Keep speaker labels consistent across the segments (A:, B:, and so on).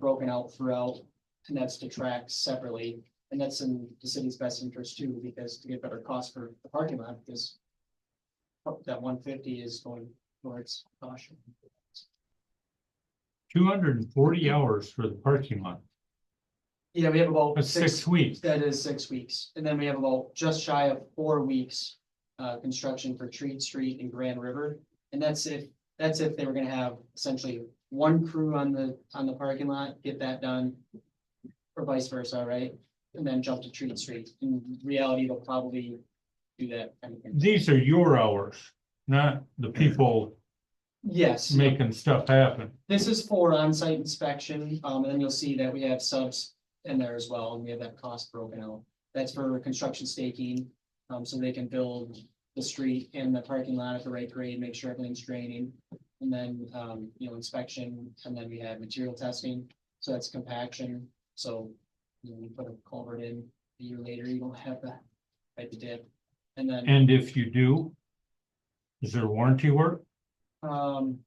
A: broken out throughout, and that's to track separately. And that's in the city's best interest too, because to get better cost for the parking lot, because that one fifty is going towards caution.
B: two hundred and forty hours for the parking lot.
A: Yeah, we have
C: Oh,
A: about
B: That's
A: six,
B: six weeks.
A: that is six weeks, and then we have about just shy of four weeks. Uh, construction for Treat Street and Grand River, and that's if, that's if they were gonna have essentially one crew on the, on the parking lot, get that done. Or vice versa, right? And then jump to Treat Street, in reality, they'll probably do that kind of thing.
B: These are your hours, not the people
A: Yes.
B: making stuff happen.
A: This is for on-site inspection, um, and then you'll see that we have subs in there as well, and we have that cost broken out. That's for construction staking, um, so they can build the street and the parking lot at the right grade, make sure everything's draining. And then, um, you know, inspection, and then we have material testing, so that's compaction, so you know, you put a culvert in a year later, you don't have that type of dip. And then,
B: And if you do, is there warranty work?
A: um,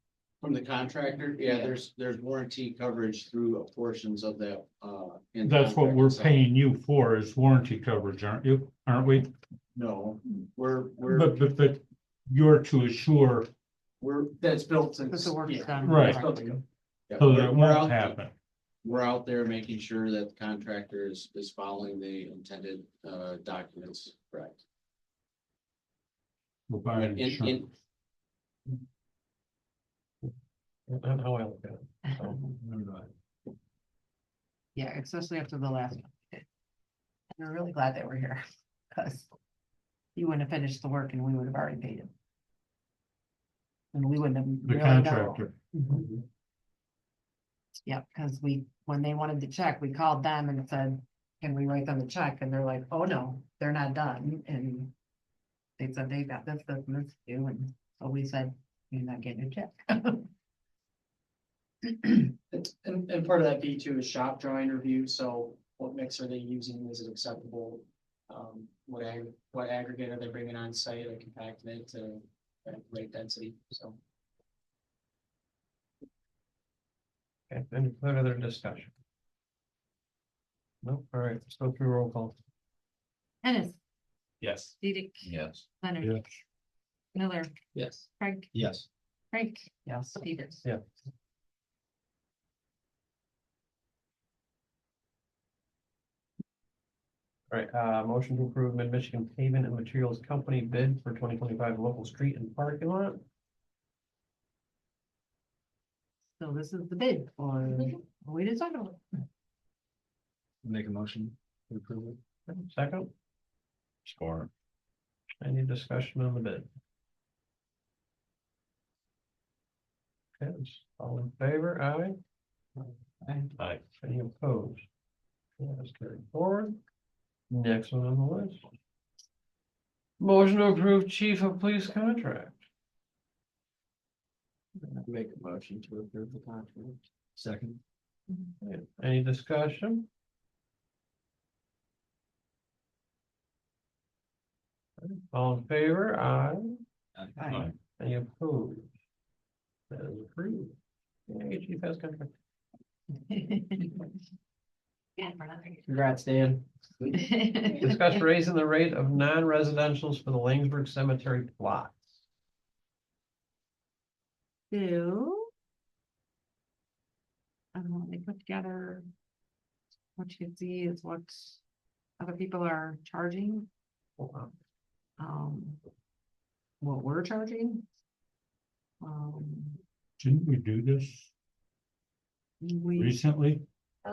D: From the contractor, yeah,
A: Yeah.
D: there's, there's warranty coverage through portions of that, uh. in the
B: That's what
D: contract
B: we're
D: itself.
B: paying you for is warranty coverage, aren't you? Aren't we?
D: No, we're, we're,
B: But, but, but you're to assure,
D: we're,
A: that's built to.
E: Because the work is
A: yeah,
E: done.
B: Right.
A: it's built to go.
D: yeah,
B: so that
D: we're-
B: it
D: we're out-
B: won't happen.
D: We're out there making sure that the contractor is, is following the intended, uh, documents, correct?
B: We're buying
D: In- in-
B: insurance.
C: That's how I look at it. so, I'm not-
E: Yeah, especially after the last. one. we did. And we're really glad that we're here, because he wouldn't have finished the work and we would have already paid him. And we wouldn't have.
B: The
E: really known.
B: contractor,
E: Mhm. Yeah, because we, when they wanted the check, we called them and said, can we write them a check? And they're like, oh, no, they're not done, and. They said they got this, this, and this to do, and so we said, you're not getting a check.
A: It's- And, and part of that B two is shop drawing review, so what mix are they using, is it acceptable? Um, what ag, what aggregate are they bringing on site, like compacted to uh, rate density, so.
C: Okay, any further discussion? Nope, all right, so through roll call.
E: Dennis,
C: Yes.
E: Dedek,
D: Yes.
B: Yeah.
E: Leonard. Miller,
A: Yes.
E: Frank,
C: Yes.
E: Frank. Yes. Peters.
C: Yeah. All right, uh, motion to approve Mid-Michigan Pavement and Materials Company bid for twenty twenty-five local street and parking lot.
E: So this is the bid for, we decided,
C: Make a motion to approve it. Second,
D: Score.
C: any discussion on the bid? Okay, all in favor, aye?
B: Aye.
C: Any opposed? That's carried forward. Next one on the list. Motion to approve chief of police contract.
D: Make a motion to approve the contract. Second.
C: Any discussion? All in favor, aye?
B: Aye.
C: Any opposed? That is approved. Yeah, chief has contract.
E: Yeah, for another.
C: Congrats, Dan. Discuss raising the rate of non-residentials for the Langsberg Cemetery plot.
E: So. Um, they put together. What you can see is what other people are charging, um. What we're charging. Um,
B: Didn't we do this
E: we
B: recently?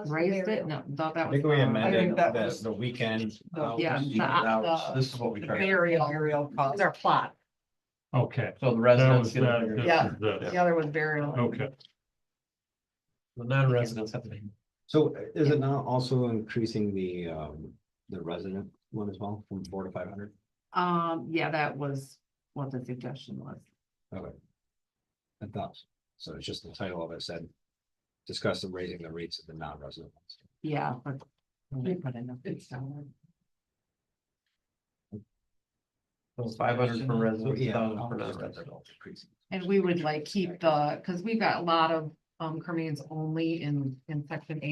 E: raised it, no, thought that
F: I
E: was.
F: think we
E: uh,
F: amended
E: that
F: the,
E: was
F: the weekend.
E: the- yeah,
F: hours,
E: the-
F: evening hours.
E: the-
F: This is what we
E: the
F: tried.
E: Burial, burial costs, our plot,
B: Okay.
C: So the
B: That was
C: residents, get
B: that.
C: a-
B: this
E: Yeah.
B: is this.
E: the other was burial.
F: Oh.
B: Okay.
C: the non-residents have to pay.
F: So uh, is it now also increasing the, um, the resident one as well from four to five hundred?
E: Um, yeah, that was what the suggestion was.
F: Okay. I thought, so it's just the title of it said, discuss the raising the rates of the non-resident. ones."
E: Yeah, but they put in a big salary.
C: So five hundred for residents,
F: Yeah,
C: thousand for
F: I'll just-
C: non-residents.
F: increasing.
E: And we would like keep the, because we've got a lot of um, Cremains only in, in section eight.